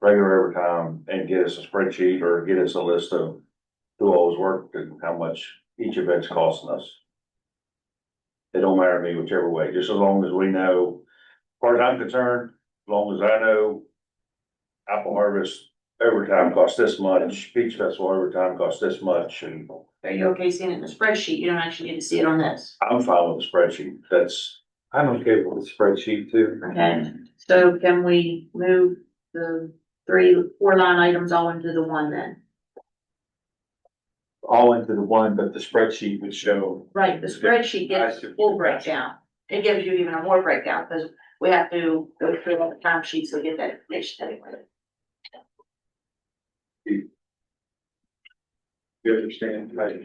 regular overtime and get us a spreadsheet or get us a list of who always worked and how much each event's costing us. It don't matter to me whichever way, just as long as we know, as far as I'm concerned, as long as I know apple harvest overtime costs this much, beach festival overtime costs this much, and Are you okay seeing it in the spreadsheet? You don't actually get to see it on this, I'm fine with the spreadsheet, that's. I'm okay with the spreadsheet too. okay? So can we move the three, four line items all into the one then? all into the one, but the spreadsheet would show. Right, the spreadsheet gives the full breakdown. It gives you even a more breakdown, because we have to go through all the time sheets to get that information anyway. You understand, right?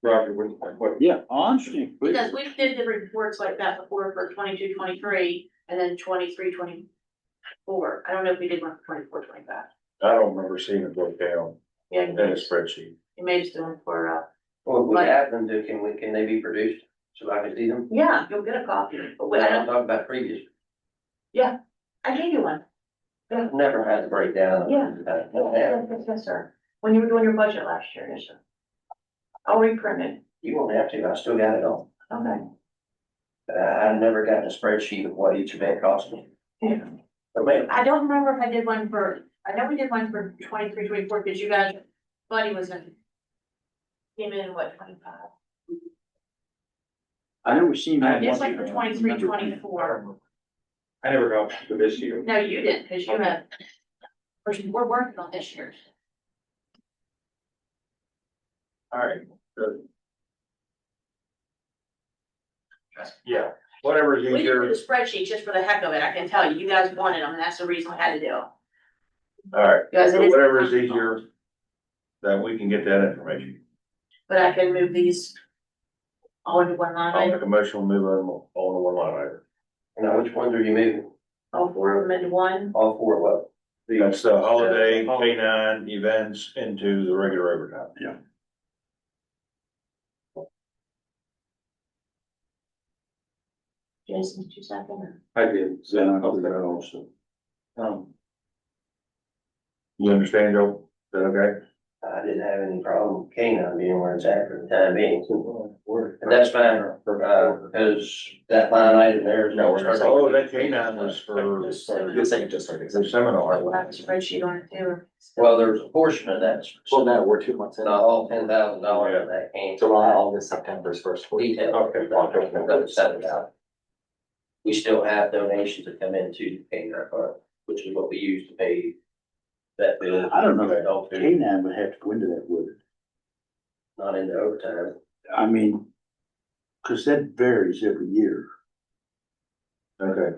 Roger, what, what? Yeah, honestly. Because we did the reports like that before for 22, 23, and then 23, 24. I don't know if we did one for 24, 25. I don't remember seeing it broke down Yeah, you in may a just- spreadsheet. you may just do them for, uh, Well, if we Like- have them, do, can we, can they be produced so I can see them? yeah, you'll get a copy, but we- Well, I I'm don't, talking about previous, I gave you one. I've never had the breakdown. of Yeah. that. Yeah, Yes, yes, yes, sir. When you were doing your budget last year, yes, sir. I'll reprint it. You won't have to, I still got it all. Okay. Uh, I've never gotten a spreadsheet of what each event cost me. Yeah. But man, I don't remember if I did one for, I know we did one for twenty-three, twenty-four, because you guys, Buddy was in. Came in, what, twenty-five? I know we seen that. It's like for twenty-three, twenty-four. I never got one for this year. No, you didn't, because you have. We're, we're working on this year's. All right, good. Yeah, whatever's We didn't do easier, the spreadsheet just for the heck of it, I can tell you, you guys wanted them, and that's the reason we had to do it. all right, You guys, it so is- whatever is easier, then we can get that information. But I can move these. All into one line I'll item, make a motion, we'll move on, all in one line item. now which ones are you moving? all four of them into one. All four, well, That's the holiday, K nine events into the regular overtime. Yeah. Jason, two seconds. I did, so I hope that also. Um, You understand, Joe? Is that okay? I didn't have any problem with canine being where it's at for the time being. Word. And that's fine, uh, because that line item there is nowhere. Oh, that K nine was for This seven. the second just started. seminar. We'll have a spreadsheet on it too. Well, there's a portion of that, Well, now we're two months in. not all ten thousand dollars of that came. July, August, September's first. week. detail. Okay. That was set about. We still have donations that come in to pay our fund, which is what we use to pay that bill. I don't know that Adult food, Canaan would have to go into that, would it? Not into overtime. I mean, cause that varies every year. Okay,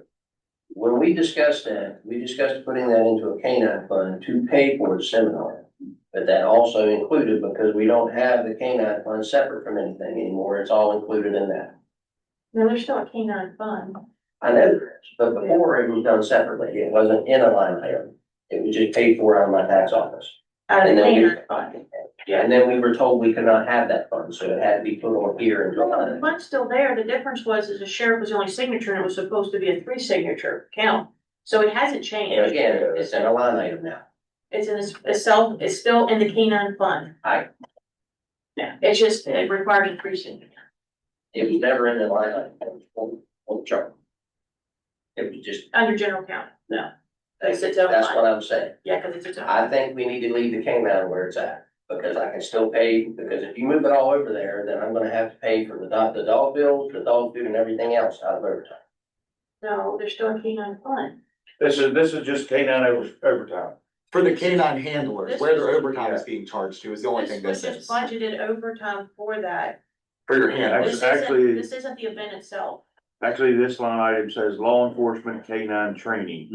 When we discussed that, we discussed putting that into a canine fund to pay for the seminar. But that also included, because we don't have the canine fund separate from anything anymore, it's all included in that. No, there's still a canine fund. I know there is, but before it was done separately, it wasn't in a line item. It was just paid for out of my tax office. Out of And the then we- canine fund. Yeah, and then we were told we could not have that fund, so it had to be put on here in The July. fund's still there. The difference was is the sheriff was the only signature and it was supposed to be a three signature count. So it hasn't And changed. again, it's in a line item now. It's in its itself, it's still in the canine fund. I, It's just, it requires a three signature. it was never in the line item, it was on, on the chart. It was just, Under general count, no. that's It's its own line. what I'm saying. Yeah, because it's its own. I think we need to leave the K nine where it's at, because I can still pay, because if you move it all over there, then I'm gonna have to pay for the dog, the dog bills, the dog food and everything else out of overtime. No, there's still a canine fund. this is, this is just K nine overtime. For the canine handlers, where their overtime is being charged to is the only This thing this was just is. budgeted overtime for that. For your Actu- This handlers. isn't, actually- this isn't the event itself. Actually, this line item says law enforcement K nine training.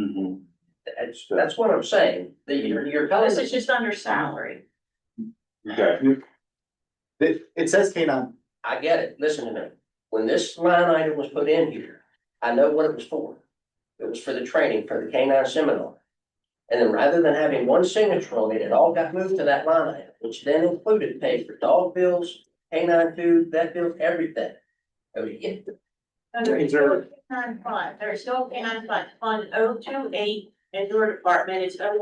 Mm-hmm. That's, that's what I'm saying, that you're, you're telling This us, is just under salary. Okay. It, it says canine. I get it, listen to me. When this line item was put in here, I know what it was for. It was for the training for the K nine seminar. And then rather than having one signature on it, it all got moved to that line item, which then included pay for dog bills, K nine food, vet bills, everything. Oh, yeah. No, there is still a canine fund. There is still a canine fund, fund O two eight in your department. It's O